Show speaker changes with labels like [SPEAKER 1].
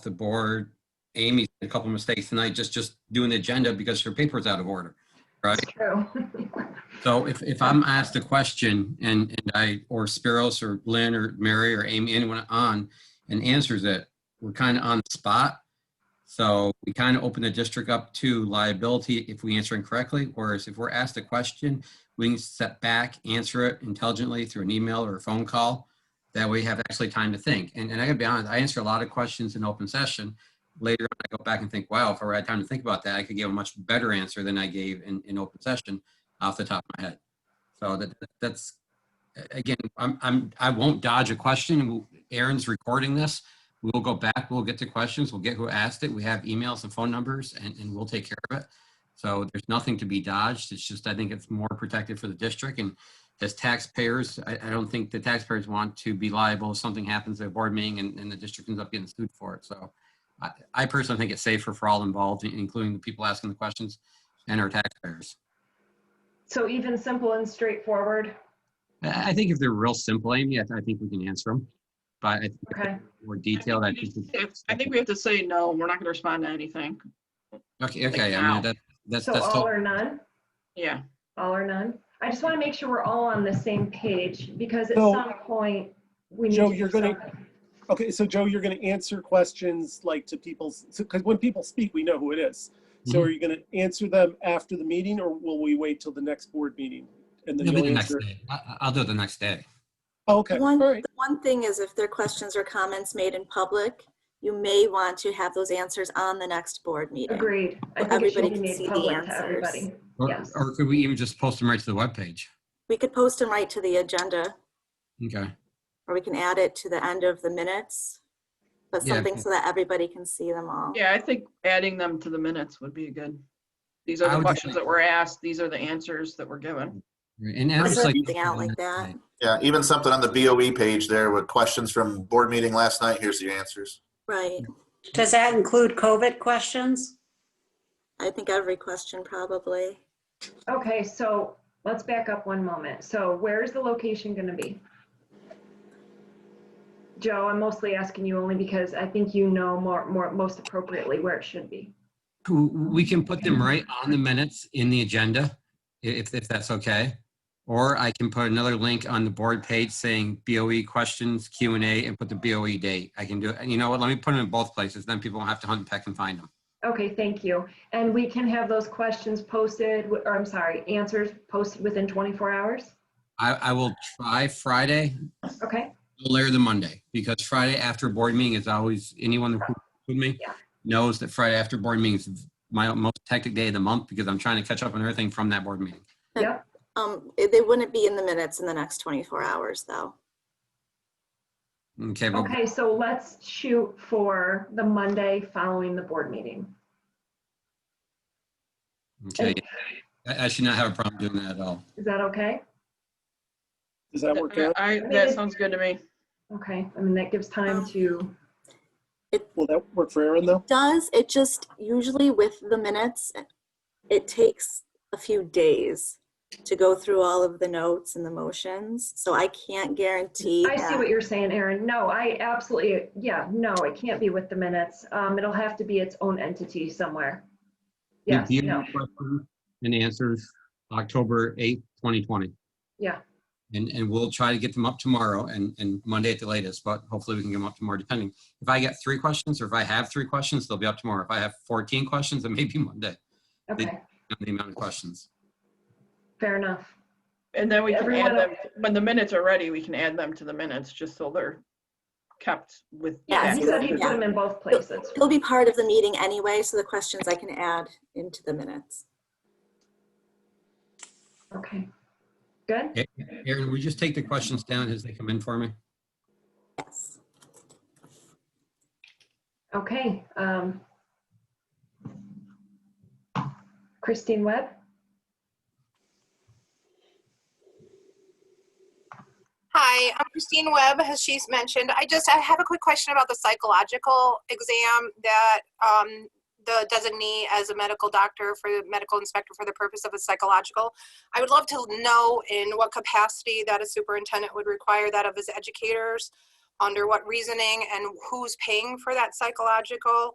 [SPEAKER 1] the board, Amy, a couple of mistakes tonight, just, just doing the agenda because her paper's out of order, right?
[SPEAKER 2] It's true.
[SPEAKER 1] So if, if I'm asked a question and, and I, or Spiros or Lynn or Mary or Amy, anyone on, and answers it, we're kind of on the spot. So we kind of open the district up to liability if we answer incorrectly, whereas if we're asked a question, we can step back, answer it intelligently through an email or a phone call. That way you have actually time to think. And, and I gotta be honest, I answer a lot of questions in open session. Later, on, I go back and think, wow, if I had time to think about that, I could give a much better answer than I gave in, in open session off the top of my head. So that, that's, again, I'm, I'm, I won't dodge a question. Aaron's recording this. We'll go back, we'll get to questions, we'll get who asked it. We have emails and phone numbers and, and we'll take care of it. So there's nothing to be dodged. It's just, I think it's more protected for the district and as taxpayers, I, I don't think the taxpayers want to be liable if something happens at a board meeting and, and the district ends up getting sued for it. So I, I personally think it's safer for all involved, including the people asking the questions and our taxpayers.
[SPEAKER 2] So even simple and straightforward.
[SPEAKER 1] I I think if they're real simple, Amy, I, I think we can answer them. But I think
[SPEAKER 2] Okay.
[SPEAKER 1] more detailed, I
[SPEAKER 3] we
[SPEAKER 1] think.
[SPEAKER 3] need to- I think we have to say, no, we're not going to respond to anything.
[SPEAKER 1] Okay, okay, I
[SPEAKER 3] now.
[SPEAKER 1] mean, that, that's,
[SPEAKER 2] So
[SPEAKER 1] that's,
[SPEAKER 2] all
[SPEAKER 1] tot-
[SPEAKER 2] or none,
[SPEAKER 3] Yeah,
[SPEAKER 2] all or none. I just want to make sure we're all on the same page because at
[SPEAKER 4] So-
[SPEAKER 2] some point we need.
[SPEAKER 4] Joe,
[SPEAKER 2] to do
[SPEAKER 4] you're gonna-
[SPEAKER 2] something.
[SPEAKER 4] Okay, so Joe, you're going to answer questions like to people's, because when people speak, we know who it is. So
[SPEAKER 1] Mhm.
[SPEAKER 4] are you going to answer them after the meeting or will we wait till the next board meeting? And then
[SPEAKER 1] it'll be
[SPEAKER 4] you'll
[SPEAKER 1] the next
[SPEAKER 4] answer?
[SPEAKER 1] day. I, I- I'll do it the next day.
[SPEAKER 4] Oh, Okay, all
[SPEAKER 5] One,
[SPEAKER 4] right.
[SPEAKER 5] the one thing is if there are questions or comments made in public, you may want to have those answers on the next board meeting.
[SPEAKER 2] Agreed. I think it
[SPEAKER 5] Everybody
[SPEAKER 2] should be
[SPEAKER 5] can see
[SPEAKER 2] made
[SPEAKER 5] the
[SPEAKER 2] public to
[SPEAKER 5] answers.
[SPEAKER 2] everybody.
[SPEAKER 1] Or,
[SPEAKER 2] Yes.
[SPEAKER 1] or could we even just post them right to the webpage?
[SPEAKER 5] We could post them right to the agenda,
[SPEAKER 1] Okay,
[SPEAKER 5] or we can add it to the end of the minutes, but
[SPEAKER 1] Yeah.
[SPEAKER 5] something so that everybody can see them all.
[SPEAKER 3] yeah, I think adding them to the minutes would be good. These are
[SPEAKER 1] I
[SPEAKER 3] the
[SPEAKER 1] would
[SPEAKER 3] questions
[SPEAKER 1] say-
[SPEAKER 3] that were asked, these are the answers that were given.
[SPEAKER 1] and, and I
[SPEAKER 5] Or
[SPEAKER 1] just like.
[SPEAKER 5] something out like that.
[SPEAKER 6] Yeah, even something on the BOE page there with questions from board meeting last night. Here's the answers.
[SPEAKER 5] Right.
[SPEAKER 7] Does that include COVID questions?
[SPEAKER 5] I think every question probably.
[SPEAKER 2] Okay, so let's back up one moment. So where is the location gonna be? Joe, I'm mostly asking you only because I think you know more, more, most appropriately where it should be.
[SPEAKER 1] Who- We can put them right on the minutes in the agenda, i- if, if that's okay. Or I can put another link on the board page saying BOE questions, Q and A, and put the BOE date. I can do it. And you know what? Let me put them in both places. Then people won't have to hunt, and peck, and find them.
[SPEAKER 2] Okay, thank you. And we can have those questions posted, wi- or I'm sorry, answers posted within 24 hours?
[SPEAKER 1] I, I will try Friday,
[SPEAKER 2] Okay,
[SPEAKER 1] no later than Monday, because Friday after a board meeting is always, anyone who with me
[SPEAKER 2] Yeah.
[SPEAKER 1] knows that Friday after board meetings is my most hectic day of the month because I'm trying to catch up on everything from that board meeting.
[SPEAKER 2] yep.
[SPEAKER 5] Um, it- they wouldn't be in the minutes in the next 24 hours, though.
[SPEAKER 1] Okay, but
[SPEAKER 2] Okay, so let's shoot for the Monday following the board meeting.
[SPEAKER 1] okay, I, I should not have a problem doing that at all.
[SPEAKER 2] Is that okay?
[SPEAKER 4] Does that work out?
[SPEAKER 3] I, that sounds good to me.
[SPEAKER 2] Okay, I mean, that gives time to,
[SPEAKER 4] Will that work for Aaron though?
[SPEAKER 5] does it just usually with the minutes it takes a few days to go through all of the notes and the motions so i can't guarantee
[SPEAKER 2] I see
[SPEAKER 5] that.
[SPEAKER 2] what you're saying, Erin. No, I absolutely, yeah, no, it can't be with the minutes. Um, it'll have to be its own entity somewhere.
[SPEAKER 1] The
[SPEAKER 2] Yes,
[SPEAKER 1] BOE
[SPEAKER 2] no,
[SPEAKER 1] question And answers, October 8th, 2020.
[SPEAKER 2] yeah,
[SPEAKER 1] And, and we'll try to get them up tomorrow and, and Monday at the latest, but hopefully we can get them up tomorrow depending. If I get three questions or if I have three questions, they'll be up tomorrow. If I have 14 questions, then maybe Monday.
[SPEAKER 2] okay,
[SPEAKER 1] on the amount of questions.
[SPEAKER 2] fair enough.
[SPEAKER 3] And then we can add
[SPEAKER 2] Everyone-
[SPEAKER 3] them, when the minutes are ready, we can add them to the minutes, just so they're kept with.
[SPEAKER 5] Yeah,
[SPEAKER 2] He said he put them in both places.
[SPEAKER 5] it'll be part of the meeting anyway so the questions i can add into the minutes
[SPEAKER 2] Okay, good?
[SPEAKER 1] Aaron, will you just take the questions down as they come in for me?
[SPEAKER 5] yes
[SPEAKER 2] Okay. um, Christine Webb?
[SPEAKER 8] Hi, I'm Christine Webb, as she's mentioned. I just, I have a quick question about the psychological exam that um, the designee as a medical doctor for the medical inspector for the purpose of a psychological. I would love to know in what capacity that a superintendent would require that of his educators. under what reasoning and who's paying for that psychological